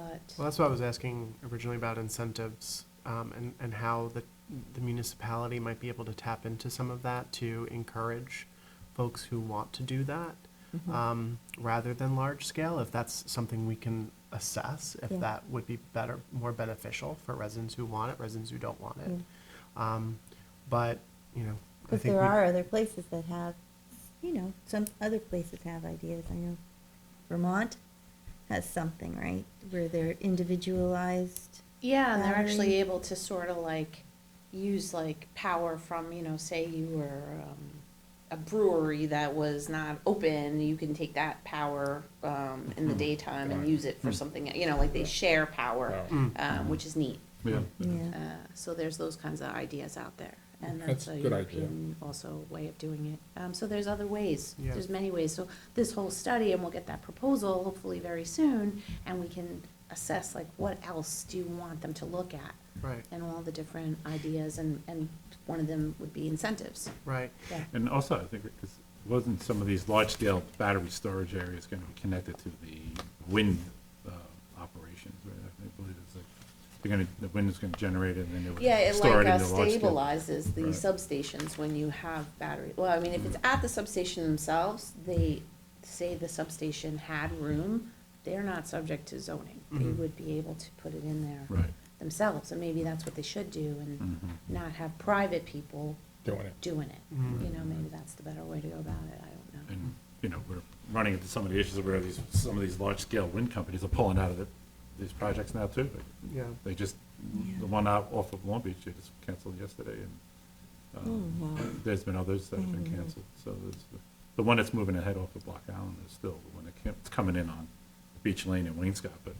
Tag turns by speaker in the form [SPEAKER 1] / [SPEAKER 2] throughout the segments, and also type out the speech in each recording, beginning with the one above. [SPEAKER 1] Well, that's what I was asking originally about incentives um, and, and how the, the municipality might be able to tap into some of that to encourage folks who want to do that
[SPEAKER 2] Mm-hmm.
[SPEAKER 1] um, rather than large scale, if that's something we can assess, if
[SPEAKER 2] Yeah.
[SPEAKER 1] that would be better, more beneficial for residents who want it, residents who don't want it. Um, but, you know, I
[SPEAKER 2] Because
[SPEAKER 1] think
[SPEAKER 2] there
[SPEAKER 1] we,
[SPEAKER 2] are other places that have, you know, some other places have ideas. I know Vermont has something, right, where they're individualized.
[SPEAKER 3] Yeah, and they're actually
[SPEAKER 2] Battery.
[SPEAKER 3] able to sort of like use like power from, you know, say you were um, a brewery that was not open, you can take that power um, in the daytime and use it for something, you know, like they share power,
[SPEAKER 1] Mm.
[SPEAKER 3] um, which is neat.
[SPEAKER 4] Yeah.
[SPEAKER 5] Mm-hmm.
[SPEAKER 2] Yeah.
[SPEAKER 3] Uh, so there's those kinds of ideas out there, and
[SPEAKER 4] That's
[SPEAKER 3] that's a
[SPEAKER 4] a good idea.
[SPEAKER 3] European also way of doing it. Um, so there's other ways,
[SPEAKER 1] Yeah.
[SPEAKER 3] there's many ways, so this whole study, and we'll get that proposal hopefully very soon, and we can assess like what else do you want them to look at,
[SPEAKER 1] right,
[SPEAKER 3] and all the different ideas, and, and one of them would be incentives.
[SPEAKER 1] right.
[SPEAKER 3] Yeah,
[SPEAKER 4] And also, I think, because wasn't some of these large-scale battery storage areas going to be connected to the wind uh, operations? right? I believe it's like, they're going to, the wind is going to generate it, and then
[SPEAKER 3] yeah,
[SPEAKER 4] it
[SPEAKER 3] it
[SPEAKER 4] would
[SPEAKER 3] like
[SPEAKER 4] store it
[SPEAKER 3] uh,
[SPEAKER 4] in the large-scale.
[SPEAKER 3] stabilizes the
[SPEAKER 4] Right.
[SPEAKER 3] substations when you have battery, well, I mean, if it's at the substation themselves, they say the substation had room, they're not subject to zoning. They
[SPEAKER 1] Mhm.
[SPEAKER 3] would be able to put it in there
[SPEAKER 4] Mm-hmm. Right.
[SPEAKER 3] themselves, and maybe that's what they should do, and
[SPEAKER 4] Mhm.
[SPEAKER 3] not have private people
[SPEAKER 5] doing it.
[SPEAKER 3] doing it.
[SPEAKER 1] Mm.
[SPEAKER 3] You know, maybe that's the better way to go about it, I don't know.
[SPEAKER 4] Mm-hmm. And, you know, we're running into some of the issues where these, some of these large-scale wind companies are pulling out of the- these projects now, too.
[SPEAKER 1] Yeah.
[SPEAKER 4] They just, the one out off of Long Beach, they just canceled yesterday, and um,
[SPEAKER 3] Oh,
[SPEAKER 4] there's been others that have been
[SPEAKER 3] Mm-hmm.
[SPEAKER 4] canceled, so there's, the- the one that's moving ahead off of Block Island is still the one that can't, it's coming in on Beach Lane and Waynscott, but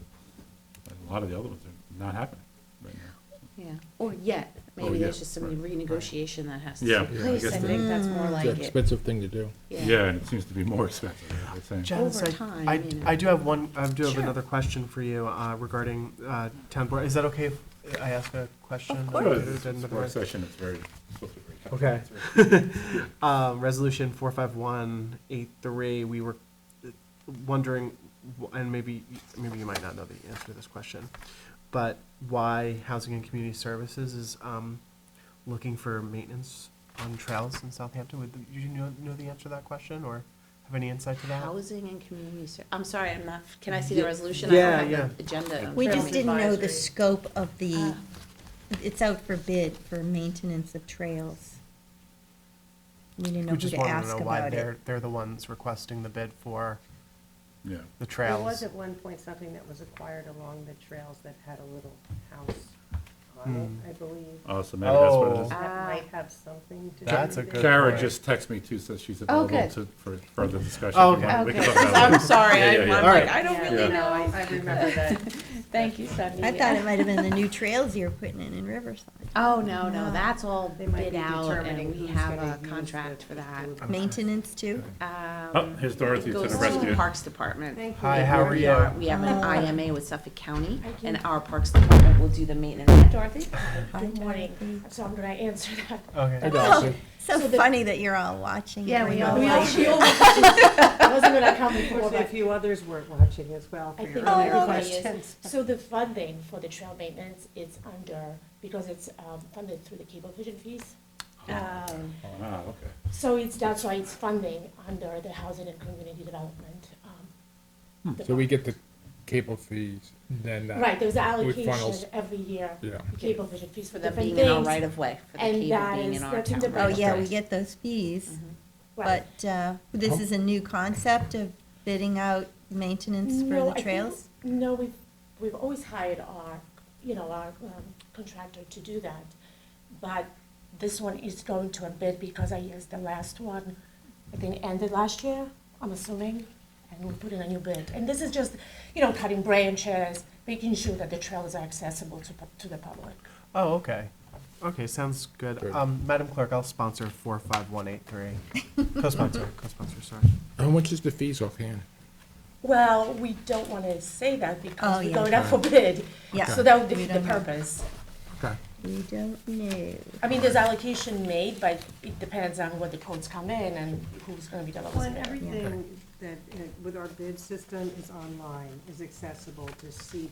[SPEAKER 4] a lot of the other ones are not happening right now.
[SPEAKER 3] Yeah, or yet,
[SPEAKER 4] Or
[SPEAKER 3] maybe there's
[SPEAKER 4] yet,
[SPEAKER 3] just some
[SPEAKER 4] Oh, right, right.
[SPEAKER 3] renegotiation that has to
[SPEAKER 4] Yeah,
[SPEAKER 3] take
[SPEAKER 4] yeah, I
[SPEAKER 3] place,
[SPEAKER 4] guess
[SPEAKER 3] I
[SPEAKER 4] that-
[SPEAKER 3] think that's more like
[SPEAKER 5] It's
[SPEAKER 3] it.
[SPEAKER 5] an expensive thing to do.
[SPEAKER 4] Yeah, and it seems to be more expensive, as they saying.
[SPEAKER 1] Janice,
[SPEAKER 3] Over
[SPEAKER 1] I-
[SPEAKER 3] time,
[SPEAKER 1] I,
[SPEAKER 3] you know.
[SPEAKER 1] I do have one, I do have
[SPEAKER 3] Sure.
[SPEAKER 1] another question for you uh, regarding uh, town board. Is that okay if I ask a question?
[SPEAKER 4] Sure,
[SPEAKER 1] Another-
[SPEAKER 4] it's- it's a
[SPEAKER 1] another-
[SPEAKER 4] Work session, it's very, supposed to be very.
[SPEAKER 1] Okay. Uh, Resolution four five one eight three, we were uh, wondering, wh- and maybe, maybe you might not know the answer to this question, but why Housing and Community Services is um, looking for maintenance on trails in Southampton? Would, you- you know, know the answer to that question, or have any insight to that?
[SPEAKER 3] Housing and community ser, I'm sorry, I'm not, can I see the resolution?
[SPEAKER 1] yeah,
[SPEAKER 3] I don't
[SPEAKER 1] yeah.
[SPEAKER 3] have the agenda. in
[SPEAKER 2] We
[SPEAKER 3] front of
[SPEAKER 2] just
[SPEAKER 3] me.
[SPEAKER 2] didn't know the
[SPEAKER 6] Advisory.
[SPEAKER 2] scope of the,
[SPEAKER 3] Ah.
[SPEAKER 2] it's out for bid for maintenance of trails. We didn't know
[SPEAKER 1] We
[SPEAKER 2] who
[SPEAKER 1] just
[SPEAKER 2] to
[SPEAKER 1] wanted to
[SPEAKER 2] ask
[SPEAKER 1] know why
[SPEAKER 2] about
[SPEAKER 1] they're,
[SPEAKER 2] it.
[SPEAKER 1] they're the ones requesting the bid for
[SPEAKER 4] Yeah,
[SPEAKER 1] the
[SPEAKER 6] There
[SPEAKER 1] trails.
[SPEAKER 6] was at one point something that was acquired along the trails that had a little house on
[SPEAKER 1] Hmm.
[SPEAKER 6] it, I believe.
[SPEAKER 4] oh, so maybe that's what it
[SPEAKER 1] Oh.
[SPEAKER 4] is.
[SPEAKER 6] That
[SPEAKER 3] Ah.
[SPEAKER 6] might have something to do with it.
[SPEAKER 1] That's a good-
[SPEAKER 4] Kara
[SPEAKER 1] point.
[SPEAKER 4] just texted me too, says she's
[SPEAKER 3] Oh,
[SPEAKER 4] available
[SPEAKER 3] good.
[SPEAKER 4] to, for further discussion.
[SPEAKER 1] Oh,
[SPEAKER 4] if you
[SPEAKER 1] okay.
[SPEAKER 4] want. We can
[SPEAKER 3] Okay,
[SPEAKER 4] talk about it
[SPEAKER 3] I'm
[SPEAKER 4] later.
[SPEAKER 3] sorry,
[SPEAKER 4] Yeah, yeah,
[SPEAKER 3] I'm
[SPEAKER 4] yeah.
[SPEAKER 3] I'm
[SPEAKER 1] All
[SPEAKER 3] like,
[SPEAKER 1] right.
[SPEAKER 3] I don't
[SPEAKER 6] Yeah,
[SPEAKER 3] really
[SPEAKER 6] no, I,
[SPEAKER 3] know.
[SPEAKER 6] I remember that.
[SPEAKER 3] Thank you, Sunny.
[SPEAKER 2] I thought it might have been the new trails you were putting in in Riverside.
[SPEAKER 3] Oh, no, no,
[SPEAKER 2] No.
[SPEAKER 3] that's all
[SPEAKER 6] They might
[SPEAKER 3] bid
[SPEAKER 6] be
[SPEAKER 3] out
[SPEAKER 6] determining
[SPEAKER 3] and we
[SPEAKER 6] who's
[SPEAKER 3] have
[SPEAKER 6] gonna
[SPEAKER 3] a
[SPEAKER 6] use the-
[SPEAKER 3] contract for that.
[SPEAKER 6] the-
[SPEAKER 2] Maintenance too?
[SPEAKER 4] Oh, here's Dorothy
[SPEAKER 3] It
[SPEAKER 4] to
[SPEAKER 3] goes
[SPEAKER 4] the
[SPEAKER 3] to the
[SPEAKER 4] rescue.
[SPEAKER 3] Parks Department.
[SPEAKER 6] Thank you.
[SPEAKER 1] Hi, how are
[SPEAKER 6] Here
[SPEAKER 1] you?
[SPEAKER 6] we
[SPEAKER 3] We have an
[SPEAKER 2] Oh.
[SPEAKER 3] IMA with Suffolk County
[SPEAKER 7] Thank you.
[SPEAKER 3] and our Parks Department will do the maintenance. Hi, Dorothy?
[SPEAKER 7] Good morning. So I'm gonna answer that.
[SPEAKER 5] I
[SPEAKER 1] Okay.
[SPEAKER 5] got you.
[SPEAKER 2] So funny that you're all watching.
[SPEAKER 3] Yeah,
[SPEAKER 2] during
[SPEAKER 3] we
[SPEAKER 2] the
[SPEAKER 3] all
[SPEAKER 7] We
[SPEAKER 2] live
[SPEAKER 7] all shield. I wasn't gonna come before,
[SPEAKER 6] Unfortunately, a
[SPEAKER 7] but,
[SPEAKER 6] few others weren't watching as well for
[SPEAKER 7] I
[SPEAKER 6] your
[SPEAKER 7] think
[SPEAKER 6] earlier
[SPEAKER 7] everybody is.
[SPEAKER 6] questions.
[SPEAKER 7] so the funding for the trail maintenance is under, because it's, um, funded through the cablevision fees.
[SPEAKER 3] Oh.
[SPEAKER 7] Um,
[SPEAKER 4] Ah, okay.
[SPEAKER 7] so it's, that's why it's funding under the housing and community development, um.
[SPEAKER 5] Hmm, So we get the cable fees, then that.
[SPEAKER 7] Right, there's
[SPEAKER 5] With funnels.
[SPEAKER 7] allocation every year,
[SPEAKER 5] Yeah.
[SPEAKER 7] cablevision fees for
[SPEAKER 3] For them
[SPEAKER 7] different
[SPEAKER 3] being
[SPEAKER 7] things.
[SPEAKER 3] in our right of way, for the
[SPEAKER 7] and
[SPEAKER 3] cable
[SPEAKER 7] that
[SPEAKER 3] being
[SPEAKER 7] is-
[SPEAKER 3] in our
[SPEAKER 7] that's in
[SPEAKER 3] town.
[SPEAKER 7] the
[SPEAKER 2] Oh,
[SPEAKER 3] right of
[SPEAKER 2] yeah,
[SPEAKER 3] way.
[SPEAKER 2] we get those
[SPEAKER 3] Mm-hmm.
[SPEAKER 2] fees,
[SPEAKER 7] Right.
[SPEAKER 2] but uh, this is a new concept of bidding out maintenance
[SPEAKER 7] No,
[SPEAKER 2] for
[SPEAKER 7] I
[SPEAKER 2] the
[SPEAKER 7] think-
[SPEAKER 2] trails?
[SPEAKER 7] No, we've, we've always hired our, you know, our um, contractor to do that. But this one is going to a bid because I guess the last one, I think, ended last year, I'm assuming. And we'll put in a new bid. And this is just, you know, cutting branches, making sure that the trails are accessible to, pu- to the public.
[SPEAKER 1] Oh, okay. Okay, sounds good.
[SPEAKER 5] Good.
[SPEAKER 1] Um, Madam Clerk, I'll sponsor four five one eight three. Co-sponsor, co-sponsor, sorry.
[SPEAKER 5] How much is the fees offhand?
[SPEAKER 7] Well, we don't want to say that
[SPEAKER 2] Oh,
[SPEAKER 7] because we're
[SPEAKER 2] yeah.
[SPEAKER 7] going out for bid.
[SPEAKER 2] Yeah.
[SPEAKER 7] So that would
[SPEAKER 2] We
[SPEAKER 7] defeat the
[SPEAKER 2] don't know.
[SPEAKER 7] purpose.
[SPEAKER 5] Okay.
[SPEAKER 2] We don't know.
[SPEAKER 7] I mean, there's allocation made, but it depends on what the codes come in and who's gonna be the lowest
[SPEAKER 6] Well, and
[SPEAKER 7] bidder.
[SPEAKER 6] everything that, uh, with our bid system is online, is accessible to see